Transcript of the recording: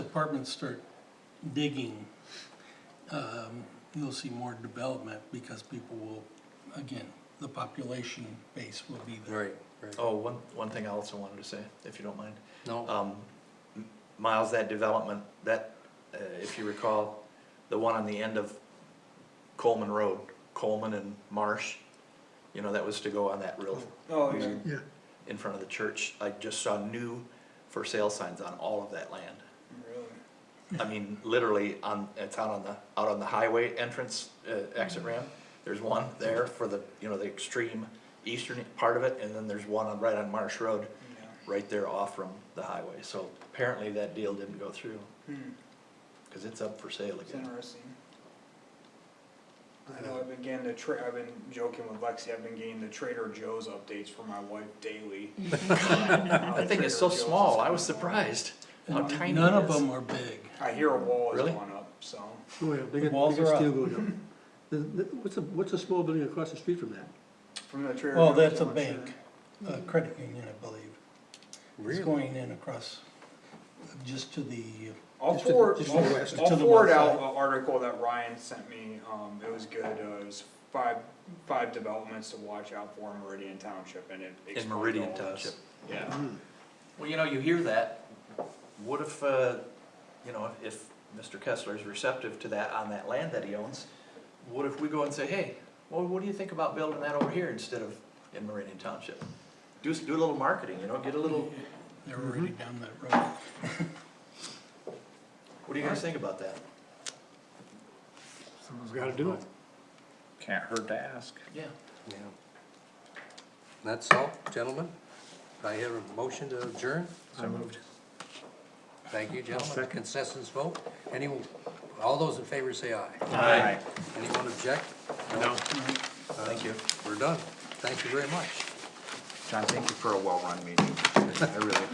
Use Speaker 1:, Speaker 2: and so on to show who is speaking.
Speaker 1: apartments start digging, um, you'll see more development because people will, again, the population base will be there.
Speaker 2: Right, right.
Speaker 3: Oh, one, one thing I also wanted to say, if you don't mind.
Speaker 2: No,
Speaker 3: Um, M- Miles, that development, that, uh, if you recall, the one on the end of Coleman Road, Coleman and Marsh, you know, that was to go on that real,
Speaker 4: Oh, yeah.
Speaker 3: in front of the church. I just saw new for sale signs on all of that land.
Speaker 4: Really?
Speaker 3: I mean, literally on, it's out on the, out on the highway entrance, uh, exit ramp. There's one there for the, you know, the extreme eastern part of it, and then there's one on, right on Marsh Road,
Speaker 4: Yeah.
Speaker 3: right there off from the highway. So apparently that deal didn't go through,
Speaker 4: Hmm.
Speaker 3: cause it's up for sale
Speaker 4: It's
Speaker 3: again.
Speaker 4: interesting. I know I've been getting the tra- I've been joking with Lexi. I've been getting the Trader Joe's updates for my wife daily.
Speaker 3: That
Speaker 4: That
Speaker 3: thing is so small, I was surprised how
Speaker 1: And
Speaker 3: tiny
Speaker 1: None
Speaker 3: it
Speaker 1: of
Speaker 3: is.
Speaker 1: them are big.
Speaker 4: I hear a wall is
Speaker 3: Really?
Speaker 4: going up, so.
Speaker 5: Oh, yeah, they
Speaker 1: The
Speaker 5: got,
Speaker 1: walls
Speaker 5: they
Speaker 1: are
Speaker 5: got
Speaker 1: up.
Speaker 5: steel going up. The- the- What's a, what's a small building across the street from that?
Speaker 4: From the Trader Joe's.
Speaker 1: Well, that's a
Speaker 4: I'm not sure.
Speaker 1: bank, a credit union, I believe. It's
Speaker 2: really?
Speaker 1: going in across, just to the,
Speaker 4: I'll
Speaker 1: Just to the-
Speaker 4: forward,
Speaker 1: just to the west.
Speaker 4: I'll-
Speaker 1: To
Speaker 4: I'll
Speaker 1: the
Speaker 4: forward
Speaker 1: west
Speaker 4: out an
Speaker 1: side.
Speaker 4: article that Ryan sent me, um, it was good, uh, it was five, five developments to watch out for in Meridian Township, and it.
Speaker 3: In
Speaker 4: explained
Speaker 3: Meridian
Speaker 4: all this.
Speaker 3: Township.
Speaker 4: Yeah,
Speaker 3: Well, you know, you hear that, what if, uh, you know, if Mr. Kessler is receptive to that on that land that he owns, what if we go and say, hey, well, what do you think about building that over here instead of in Meridian Township? Do, s- do a little marketing, you know, get a little, Mm-hmm.
Speaker 1: they're already down that road.
Speaker 3: what do you guys think about that?
Speaker 5: Someone's gotta do it.
Speaker 6: Can't hurt to ask.
Speaker 3: Yeah.
Speaker 2: Yeah. That's all, gentlemen. I have a motion to adjourn.
Speaker 6: So moved.
Speaker 2: Thank you, gentlemen. Consensus vote. Any, all those in favor say aye.
Speaker 6: Aye.
Speaker 2: Anyone object?
Speaker 6: No,
Speaker 3: Thank you.
Speaker 2: We're done. Thank you very much.
Speaker 6: John, thank you for a well-run meeting. I really